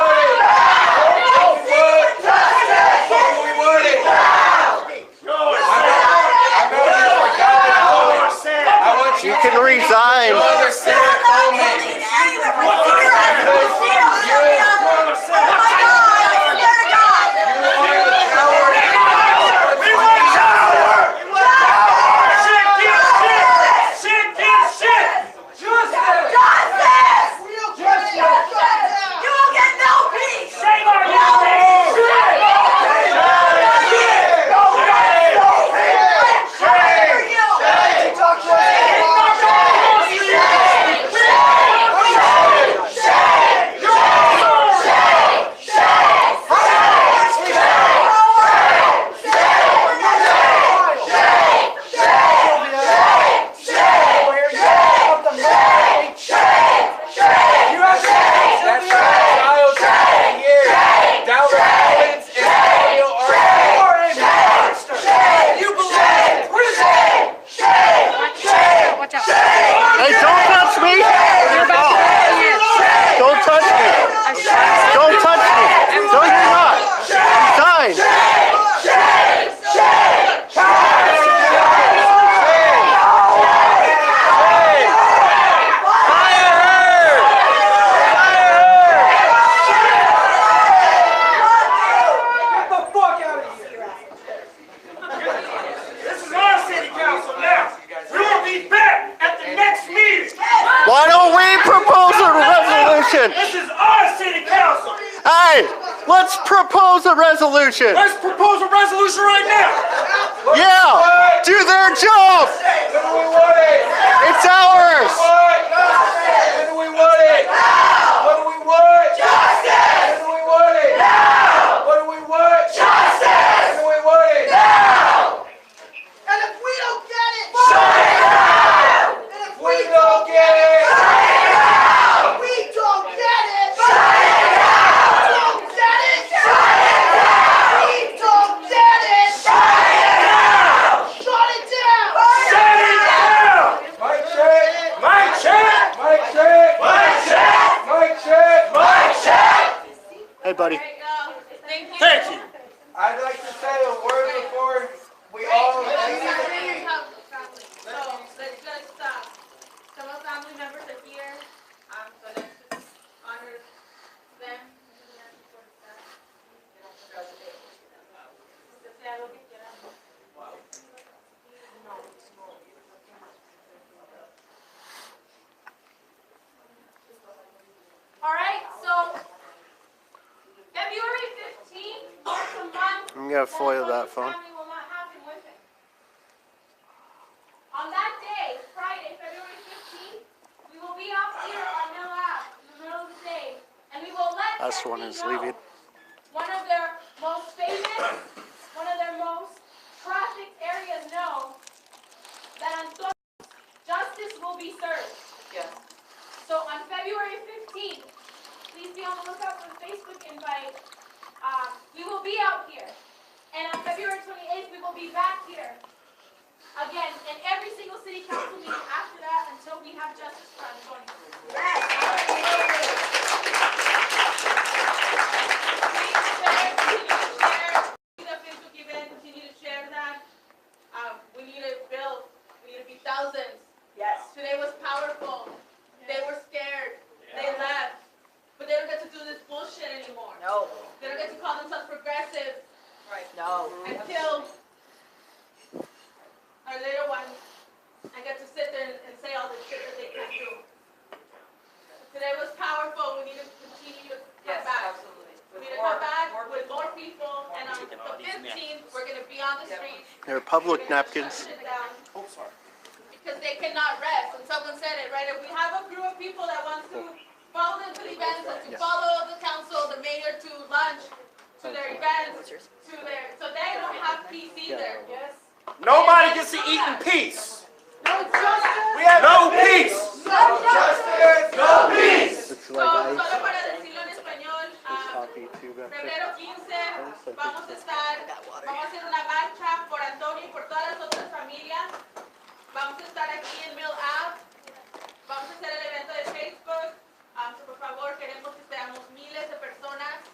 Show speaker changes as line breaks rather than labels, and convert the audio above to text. Hey, let's propose a resolution.
Let's propose a resolution right now.
Yeah, do their job.
When do we want it?
It's ours.
When do we want it? Now. What do we want? Justice. When do we want it? Now. What do we want? Justice. When do we want it?
And if we don't get it, shut it down. And if we
We
don't
don't
get
get it.
it, we don't get it, shut it down. Don't get it, shut it down. We don't get it, shut it down. Shut it down.
Shut it down. Mic check. Mic check. Mic check. Mic check. Mic check. Mic check.
Hey, buddy.
Thank you.
Thank you. I'd like to say a word before we all leave the meeting.
So let's just, uh, some of family members are here, um, so let's just honor them. All right, so February fifteenth, it's a month.
I'm gonna foil that phone.
Family will not have him with it. On that day, Friday, February fifteenth, we will be off here on Mill Ave in the middle of the day, and we will let
Last
Texas
one is
know.
leaving.
One of their most famous, one of their most trafficked areas know that Antonio, justice will be served. So on February fifteenth, please be on the lookout for the Facebook invite. Uh, we will be out here. And on February twenty-eighth, we will be back here. Again, in every single city council meeting after that until we have justice for Antonio. Please share, continue to share, see the Facebook event, continue to share that. Um, we need to build, we need to be thousands.
Yes.
Today was powerful. They were scared. They left. But they don't get to do this bullshit anymore.
No,
They don't get to call themselves progressive
no.
until our little ones, I get to sit there and, and say all the shit that they can't do. Today was powerful. We need to continue to come back. We need to come back with more people. And on the 15th, we're going to be on the streets.
They're public napkins.
Oh, sorry. Because they cannot rest, and someone said it, right? If we have a group of people that wants to follow them to the events, and to follow the council, the mayor to lunch, to their events, to their, so they don't have peace either. Yes.
Nobody gets to eat in peace.
No justice,
No peace.
no justice.
No peace.
It's
So, solo para decirlo en español, ah, febrero 15 vamos a estar, vamos a hacer una marcha por Antonio y por todas las otras familias. Vamos a estar aquí en Mill Ave. Vamos a hacer el evento de Facebook. Ah, por favor, queremos que seamos miles de personas.